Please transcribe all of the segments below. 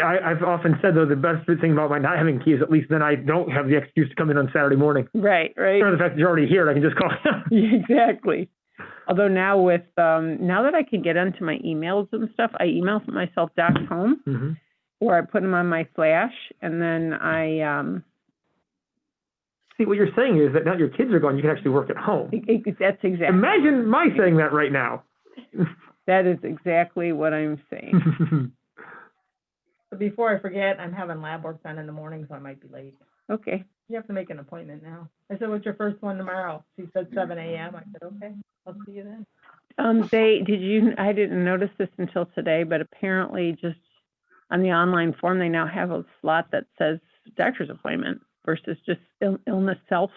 I, I've often said though, the best thing about my not having keys, at least then I don't have the excuse to come in on Saturday morning. Right, right. Or the fact that you're already here, I can just call. Exactly. Although now with um, now that I can get onto my emails and stuff, I email myself docs home hmm or I put them on my flash and then I um, See, what you're saying is that now your kids are gone, you can actually work at home. it, it, e, that's exactly Imagine my saying that right now. that is exactly what I'm saying. But Before I forget, I'm having lab work done in the morning, so I might be late. Okay. You have to make an appointment now. I said, what's your first one tomorrow? She said seven AM. I said, okay, I'll see you then. Um, they did you? I didn't notice this until today, but apparently, just on the online form, they now have a slot that says doctor's appointment versus just Ill- illness self.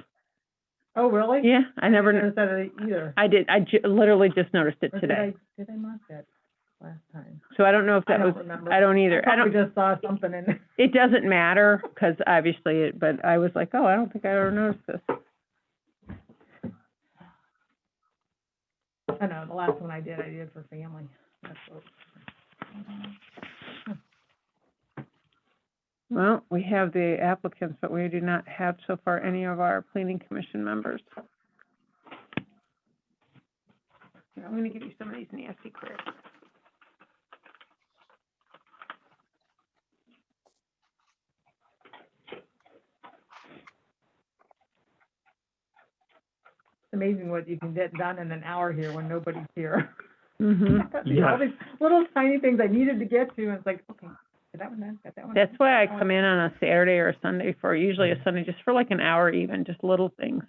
Oh, really? Yeah, I never. I kn- never said it either. I did. I ju- literally just noticed it Or did today, I- Did I mark that last time? so I don't know if I that was. don't remember. I don't either. I probably don't. just saw something in there. It doesn't matter because obviously, it, but I was like, oh, I don't think I ever noticed this. I know, the last one I did, I did for family. That's what- Well, we have the applicants, but we do not have so far any of our planning commission members. Here, I'm gonna give you some of these nasty queries. It's amazing what you can get done in an hour here when nobody's here. hmm You know, All these little tiny things I needed to get to, and it's like, okay, got that one done, got that one. That's done, why I got that come one in on a Saturday or a Sunday for, usually a Sunday, just for like an hour even, just little things.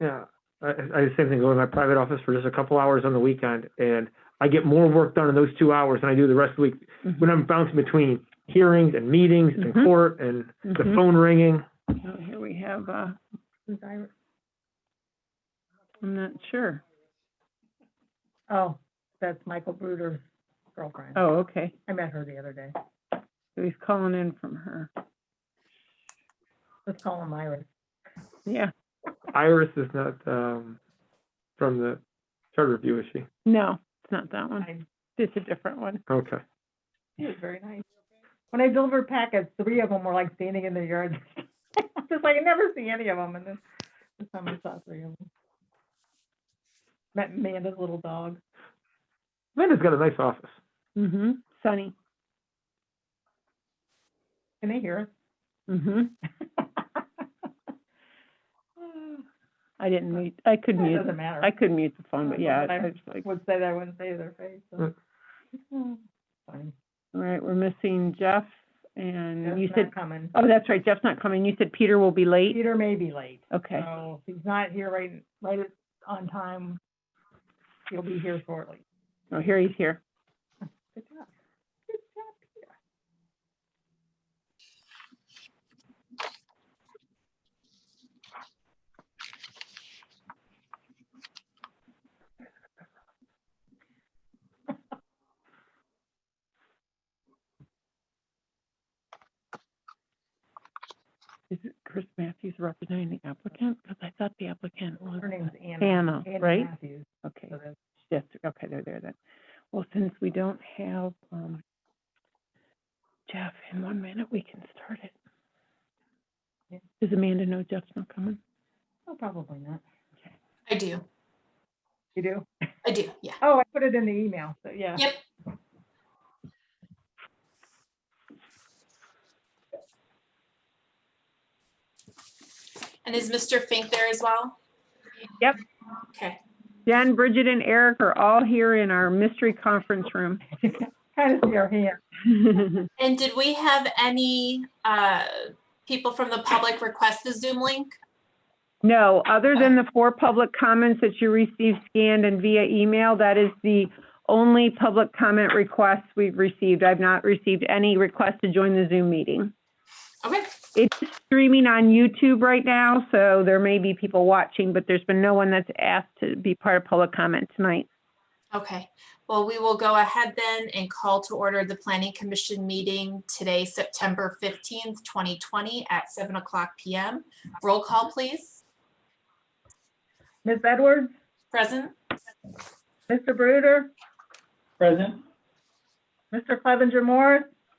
Yeah, I, I I do the same thing. Go to my private office for just a couple hours on the weekend, and I get more work done in those two hours than I do the rest of the week Mhm. when I'm bouncing between hearings and meetings Mhm. and court and the Mhm. phone ringing. Oh, Here we have, uh, done. Diver- I'm not sure. Oh, that's Michael Bruder's girlfriend. Oh, okay. I met her the other day. So he's calling in from her. Let's call him Iris. Yeah. Iris is not um, from the charter review, is she? No, it's not that one. I- It's a different one. Okay. She was very nice. When I delivered packets, three of them were like standing in their yard. Just like, I never see any of them, and then this time I saw three of them. Met Amanda's little dog. Amanda's got a nice office. Mm-hmm. Sunny. Can they hear Mm-hmm. us? I didn't mute, I could It mute. doesn't matter. I could mute the phone, but That's yeah, what I I- was like, all would say that I wouldn't say to their face. so. Funny. right, we're missing Jeff and you Jeff's said, not coming. oh, that's right, Jeff's not coming. You said Peter will be late? Peter Oh. may be late. Okay, So if he's not here right, right at- on time, he'll be here shortly. oh, here he's here. Good job. Good job, Peter. Is it Chris Matthews representing the applicant? Because I thought the applicant was Her name's Anna. Anna, Anna right? Matthews. Oh, Okay, So that's- yes, okay, they're there then. Well, since we don't have, um, Jeff, in one minute, we can start it. Yeah. Does Amanda know Jeff's not coming? Oh, probably not. I do. You do? I do. Yeah. Oh, I put it in the email, so yeah. Yep. And is Mr. Fink there as well? Yep. Okay. Jen, Bridget, and Eric are all here in our mystery conference room. Kind of see her hand. And did we have any uh, people from the public request the Zoom link? No, other than the four public comments that you received scanned and via email, that is the only public comment request we've received. I've not received any request to join the Zoom meeting. Okay. It's streaming on YouTube right now, so there may be people watching, but there's been no one that's asked to be part of public comment tonight. Okay. Well, we will go ahead then and call to order the Planning Commission meeting today, September 15th, 2020 at 7 o'clock PM. Roll call, please. Ms. Edwards, Present? Mr. Bruder? Present. Mr. Clevenger Morris,